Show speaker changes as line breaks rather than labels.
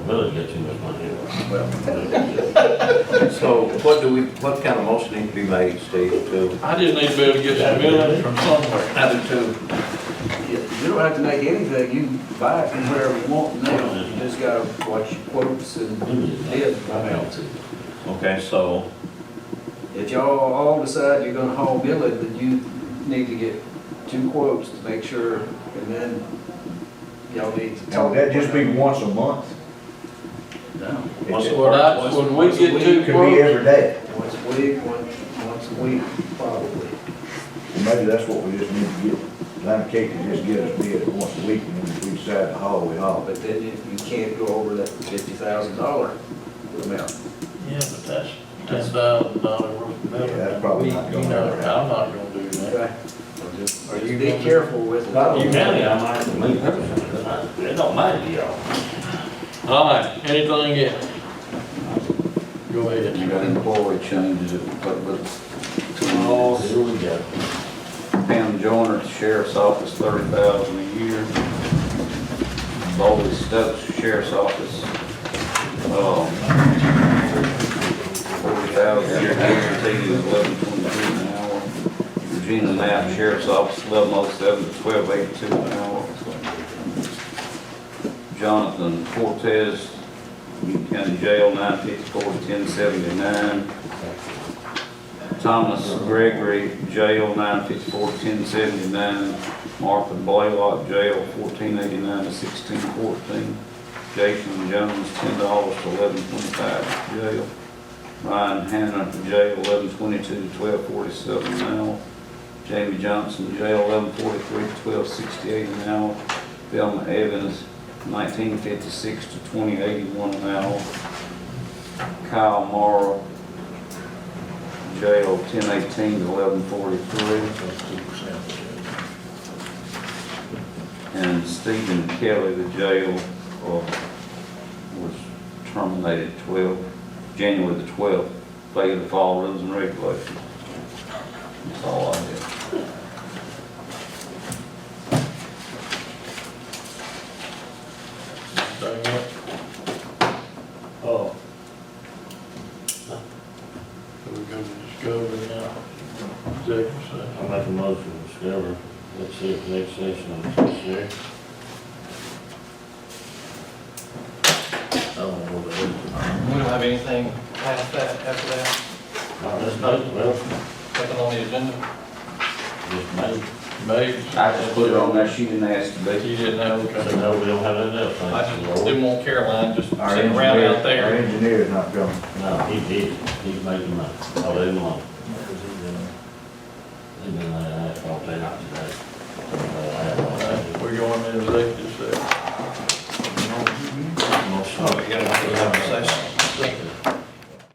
Billy's got too much money anyway.
Well,
So what do we, what kind of motion need to be made, Steve, to?
I just need to be able to get some millage from somewhere.
I do too.
you you don't have to make anything, you can buy it from wherever you want now, you just gotta watch your quotes and bid.
Okay, so,
If y'all all decide you're gonna haul billet, then you need to get two quotes to make sure, and then y'all need to
Now,
talk.
would that just be once a month?
No,
Once a
Would I, would we get
It
two
Could be
quotes?
every day.
once a week, once, once a week, probably.
Maybe that's what we just need to get, Lime Cake to just get us bid once a week, and then if we decide to haul, we haul.
But then if you can't go over that fifty thousand dollar amount,
Yeah, but that's ten thousand dollar worth of millage.
Yeah, that's probably not
You
gonna
know,
happen.
I'm not gonna do that.
okay?
Are you
Be
gonna-
careful with it.
Not
You can, I might, to me, personally, it don't matter to y'all.
All right, anything else? Go ahead.
You got employee changes, but, but
Oh, here we go.
Pam Joyner at the sheriff's office, thirty thousand a year. Bobby Stokes, sheriff's office, um, forty thousand a year, guaranteed is eleven twenty-two an hour. Regina Knapp, sheriff's office, eleven oh seven to twelve eighty-two an hour. Jonathan Cortez, Newton County Jail, nine fifty-four to ten seventy-nine. Thomas Gregory, jail, nine fifty-four, ten seventy-nine. Martha Blaylock, jail, fourteen eighty-nine to sixteen fourteen. Jason Jones, ten dollars to eleven twenty-five, jail. Ryan Hannah, jail, eleven twenty-two to twelve forty-seven an hour. Jamie Johnson, jail, eleven forty-three to twelve sixty-eight an hour. Velma Evans, nineteen fifty-six to twenty eighty-one an hour. Kyle Morrow, jail ten eighteen to eleven forty-three. And Stephen Kelly, the jail, uh, was terminated twelve, January the twelfth, failure to follow rules and regulations. That's all I have.
Anything else?
Oh.
So we go to discovery now. Executive session.
I make a motion to discover, let's see if next session is necessary. I don't know what it is.
We don't have anything past that, after that,
All right, let's vote, well,
second on the agenda.
just made,
Maybe.
I just put it on there, she didn't ask to be.
You didn't have a
so now we don't have anything else.
I just
thank you, Lord.
didn't want Caroline just
Our
sitting around
engineer-
out
Our
there.
engineer's not coming.
No, he did, he's making money, Oh, I'll leave him alone. He's been like that all day, not today.
We're going to executive session.
Motion. Oh, yeah, we have a